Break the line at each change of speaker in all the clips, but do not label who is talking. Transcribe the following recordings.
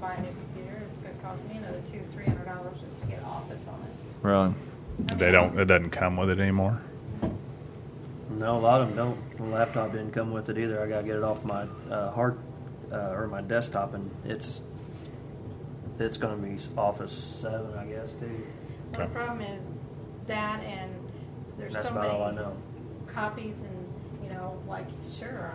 buy a new computer, it's gonna cost me another two, three hundred dollars just to get Office on it.
Really?
They don't. It doesn't come with it anymore.
No, a lot of them don't. The laptop didn't come with it either. I gotta get it off my uh, hard uh, or my desktop, and it's it's gonna be Office Seven, I guess, too.
Well,
Okay.
the problem is that and there's
That's
so
about all I
many
know.
copies and, you know, like, sure,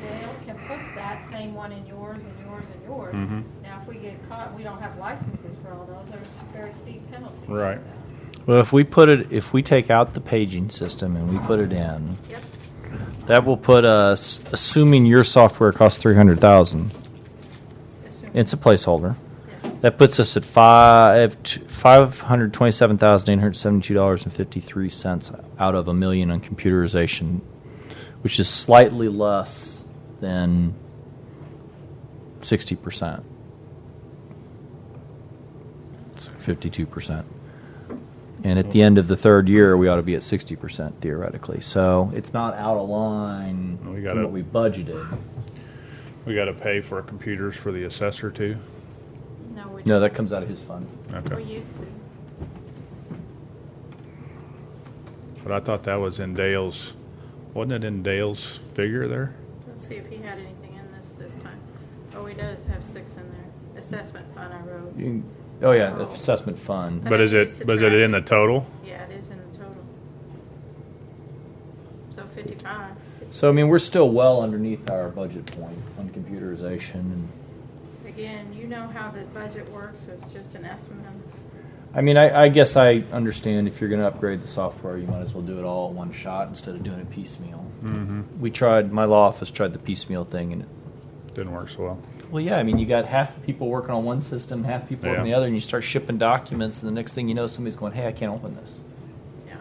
Dale can put that same one in yours and yours and yours.
Mhm.
Now, if we get caught, we don't have licenses for all those, there's very steep penalties for
Right.
that.
Well, if we put it, if we take out the paging system and we put it in,
Yep,
that will put us, assuming your software costs three hundred thousand,
assuming,
it's a placeholder.
yes.
That puts us at five five hundred twenty-seven thousand eight hundred seventy-two dollars and fifty-three cents out of a million on computerization, which is slightly less than sixty percent, fifty-two percent. And at the end of the third year, we ought to be at sixty percent theoretically. So it's not out of line
We
from
gotta-
what we budgeted.
We got to pay for computers for the assessor too.
No, we.
No, that comes out of his fund.
We
Okay.
used to.
But I thought that was in Dale's. Wasn't it in Dale's figure there?
Let's see if he had anything in this this time. Oh, he does have six in there. Assessment fund I wrote.
You can, oh yeah, the assessment fund.
I
But is
think
it
we
was it in the total?
Yeah, it is in the total. So fifty-five.
So I mean, we're still well underneath our budget point on computerization. And,
Again, you know how the budget works, it's just an estimate.
I mean, I, I guess I understand if you're going to upgrade the software, you might as well do it all at one shot instead of doing it piecemeal.
Mm-hmm.
We tried. My law office tried the piecemeal thing, and it,
Didn't work so well.
well, yeah. I mean, you got half the people working on one system, half people working on
Yeah.
the other, and you start shipping documents, and the next thing you know, somebody's going, "Hey, I can't open this."
Yeah.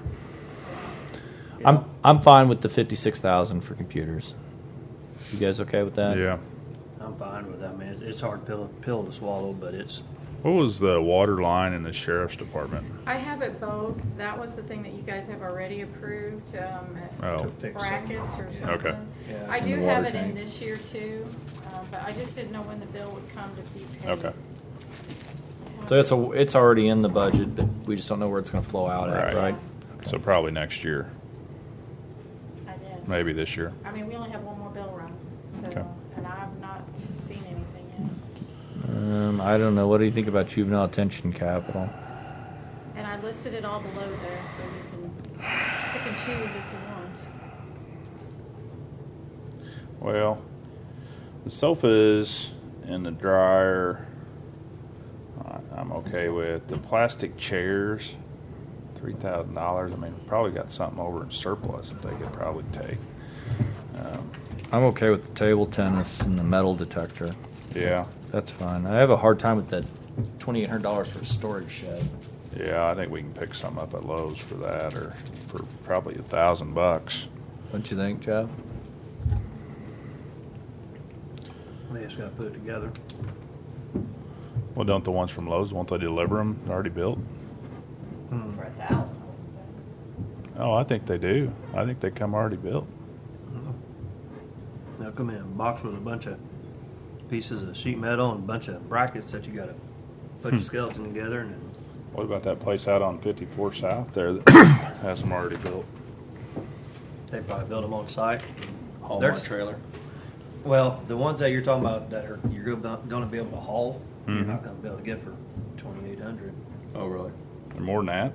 I'm I'm fine with the fifty-six thousand for computers. You guys okay with that?
yeah.
I'm fine with that. I mean, it's, it's hard pill pill to swallow, but it's
What was the water line in the sheriff's department?
I have it both. That was the thing that you guys have already approved, um,
Oh.
to fix it.
brackets or
Yeah. Okay.
something.
Yeah,
I
and
do
the
have
water
it in
tank.
this year too, uh, but I just didn't know when the bill would come to be paid.
Okay.
So it's a it's already in the budget, but we just don't know where it's going to flow out at,
Right.
right?
So probably next year,
I guess.
maybe this year.
I mean, we only have one more bill run, so,
Okay.
and I've not seen anything
Um, I don't know. What do you think about juvenile attention capital?
yet. And I listed it all below there, so you can pick and choose if you want.
Well, the sofas and the dryer, I- I'm okay with. The plastic chairs, three thousand dollars. I mean, we probably got something over in surplus that they could probably take. Um,
I'm okay with the table tennis and the metal detector.
yeah,
That's fine. I have a hard time with that twenty-eight hundred dollars for a storage shed.
yeah. I think we can pick some up at Lowe's for that, or for probably a thousand bucks.
Don't you think, Jeff?
we just gotta put it together.
Well, don't the ones from Lowe's? Won't they deliver them already built?
Hmm.
For a thousand.
Oh, I think they do. I think they come already built.
They'll come in a box with a bunch of pieces of sheet metal and a bunch of brackets that you gotta put the skeleton together and then
What about that place out on 54 South there that has them already built?
they probably build them on site.
Haul
There's-
trailer.
Well, the ones that you're talking about that are, you're gonna gonna be able to haul, you're
Mhm.
not gonna be able to get for twenty-eight hundred.
Oh, really?
They're more than that.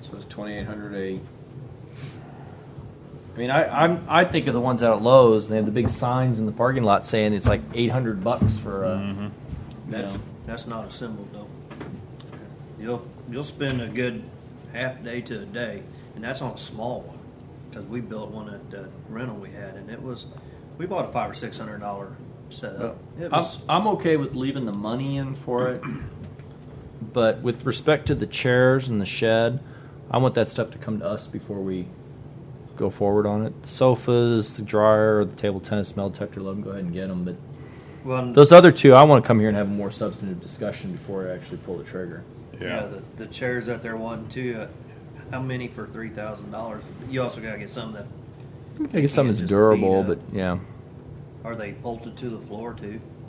So it's twenty-eight hundred a,
I mean, I, I'm I think of the ones out at Lowe's and they have the big signs in the parking lot saying it's like eight hundred bucks for a.
Mm-hmm.
Mhm.
That's, that's not assembled though. You'll, you'll spend a good half day to a day, and that's on a small one. Cause we built one at the rental we had, and it was, we bought a five or six hundred dollar setup. It
I'm,
was,
I'm okay with leaving the money in for it, but with respect to the chairs and the shed, I want that stuff to come to us before we go forward on it. Sofas, the dryer, the table tennis, smell detector, let them go ahead and get them. But
well,
those other two, I want to come here and have a more substantive discussion before I actually pull the trigger.
Yeah.
Yeah, the, the chairs that they're wanting too, uh, how many for three thousand dollars? You also gotta get some that,
I guess something's
just beat
durable,
up.
but yeah.
are they bolted to the floor too?